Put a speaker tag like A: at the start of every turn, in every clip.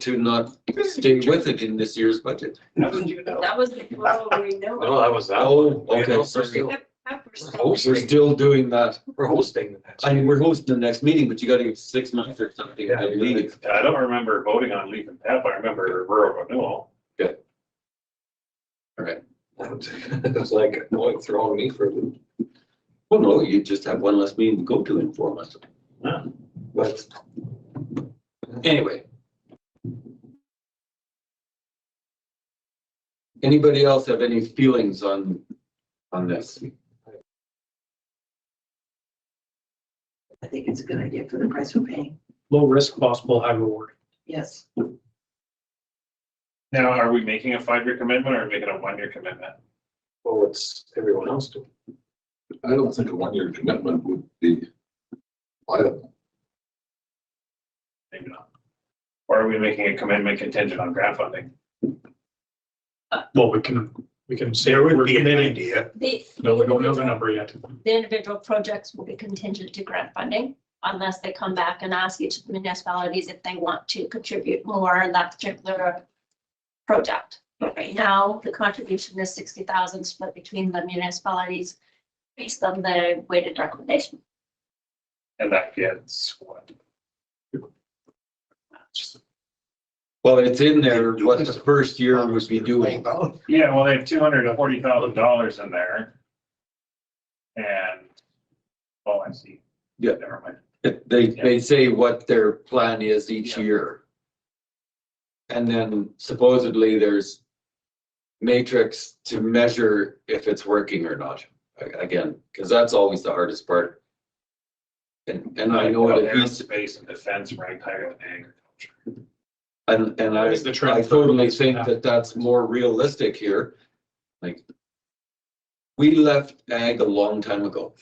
A: to not stay with it in this year's budget.
B: How did you know?
C: That was the pro renewal.
B: No, that was that.
A: Oh,
B: one.
A: okay,
B: We're
A: sorry.
B: still-
A: We're still doing that.
B: We're hosting. the next-
A: I mean, we're hosting the next meeting, but you gotta give six months or something, I believe.
D: I don't remember voting on leaf and tap, I remember rural renewal.
B: It's like, no, it's throwing me for a loop.
A: Well, no, you just have one less meeting to go to in four months.
D: Yeah.
A: But anyway. Anybody else have any feelings on, on this?
E: I think it's a good idea for the price we're paying.
F: low risk, possible high reward.
E: Yes.
D: Now, are we making a five-year commitment or are we making a one-year commitment?
B: Well, it's everyone else doing.
G: I don't think a one-year commitment would be viable.
D: Maybe not. Or are we making a commitment contingent on grant funding?
F: Well, we can, we can say we're committing,
B: idea.
C: The,
F: but we don't know the number yet.
C: the individual projects will be contingent to grant funding unless they come back and ask each of the municipalities if they want to contribute more in that particular project. But Right now, the contribution is sixty thousand split between the municipalities based on the weighted recommendation.
D: And that gets what?
A: Well, it's in there, what the first year would be doing.
D: Yeah, well, they have two hundred and forty thousand dollars in there. And, oh, I see.
A: Yeah.
D: Never mind.
A: They, they say what their plan is each year. And then supposedly there's matrix to measure if it's working or not, a- again, because that's always the hardest part. And, and I know that he's,
D: Aerospace and defense ranked higher than agriculture.
A: and, and I,
F: Is the trend-
A: I totally think that that's more realistic here, like. We left ag a long time ago,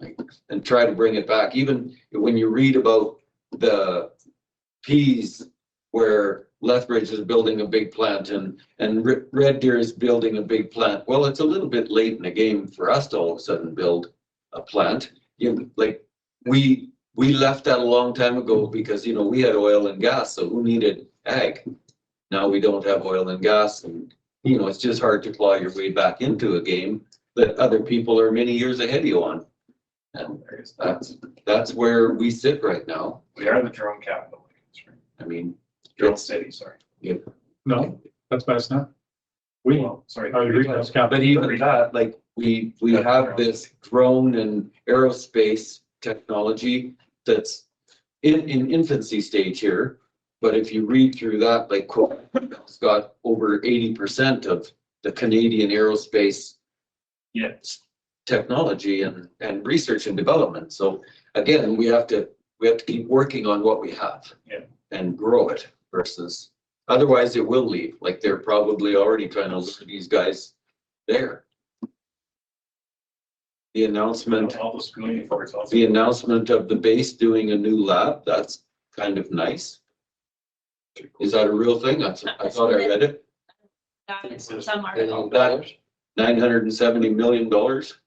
A: like, and try to bring it back, even when you read about the peas. Where Lethbridge is building a big plant and, and Re- Red Deer is building a big plant, well, it's a little bit late in the game for us to all of a sudden build a plant. You, like, we, we left that a long time ago because, you know, we had oil and gas, so who needed ag? now we don't have oil and gas and, you know, it's just hard to claw your way back into a game that other people are many years ahead of you on. And that's, that's where we sit right now.
D: We are the drone capital. That's right.
A: I mean,
D: Drone
A: it's,
D: city, sorry.
F: No, that's bad, it's not. We, are
D: Well, Sorry.
F: you reading this, Cap?
A: but even that, like, we, we have this drone and aerospace technology that's in, in infancy stage here. But if you read through that, like, Quebec's got over eighty percent of the Canadian aerospace
D: Yeah.
A: technology and, and research and development. So again, we have to, we have to keep working on what we have.
D: Yeah.
A: And grow it versus, otherwise it will leave, like they're probably already trying to lure these guys there. The announcement,
D: All the schooling efforts also.
A: the announcement of the base doing a new lab, that's kind of nice. Is that a real thing? That's, I thought I read it,
C: That is some are-
A: nine hundred and seventy million dollars.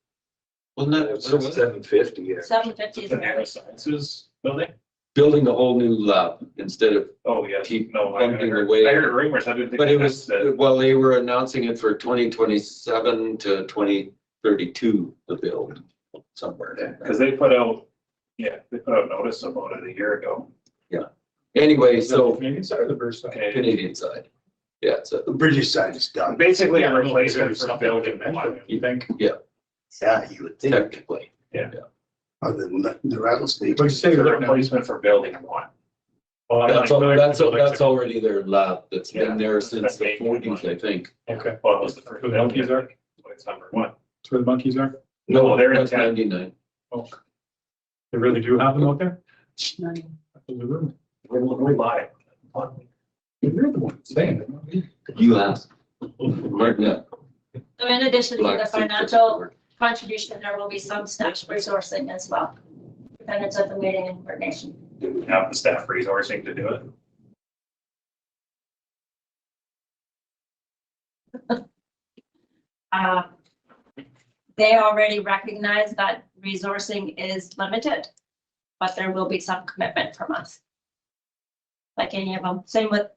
A: Wasn't that, what it was?
B: Seven fifty, yeah.
C: Seven fifty
D: The
C: is very
D: neurosciences building?
A: building a whole new lab instead of
D: Oh, yeah.
A: Keep
D: No, I
A: bumping
D: heard,
A: away.
D: I heard rumors. I didn't think.
A: But it was,
D: that's the-
A: well, they were announcing it for twenty twenty-seven to twenty thirty-two, the build somewhere there.
D: Cause they put out, yeah, they put out notice about it a year ago.
A: Anyway, so
F: Maybe it's the first time.
D: Okay.
A: Canadian side. Yeah, so
H: The British side is done.
D: Basically
F: Yeah,
D: a
F: I mean,
D: replacement
F: there's
D: for
F: something
D: building.
F: that
D: one.
F: You think?
H: Yeah, you would think,
A: technically,
H: other than the- the rattlesnake.
F: But you say
D: It's a
F: right now-
D: replacement for building one.
F: Well, I'm not
A: that's, al-
F: familiar
A: that's,
F: with
A: al-
F: the buildings.
A: that's already their lab that's
D: Yeah,
A: been there since
D: that's
A: the
D: making it
A: forties, I think.
F: Okay,
D: Well, it was the first.
F: Who the hell is that?
D: But It's number one.
F: that's where the monkeys are.
D: No, they're in
A: That's
D: town.
A: ninety-nine.
F: They really do have them out there? Absolutely.
D: We, we lied.
F: You're the one saying it. not me.
A: You asked. Martin, yeah.
C: So in addition to
A: Black
C: the
A: Sea
C: financial
A: Forest.
C: contribution, there will be some staff resourcing as well. Depending on the meeting and coordination.
D: Do we have the staff resourcing to do it?
C: Uh, They already recognize that resourcing is limited, but there will be some commitment from us. Like any of them, same with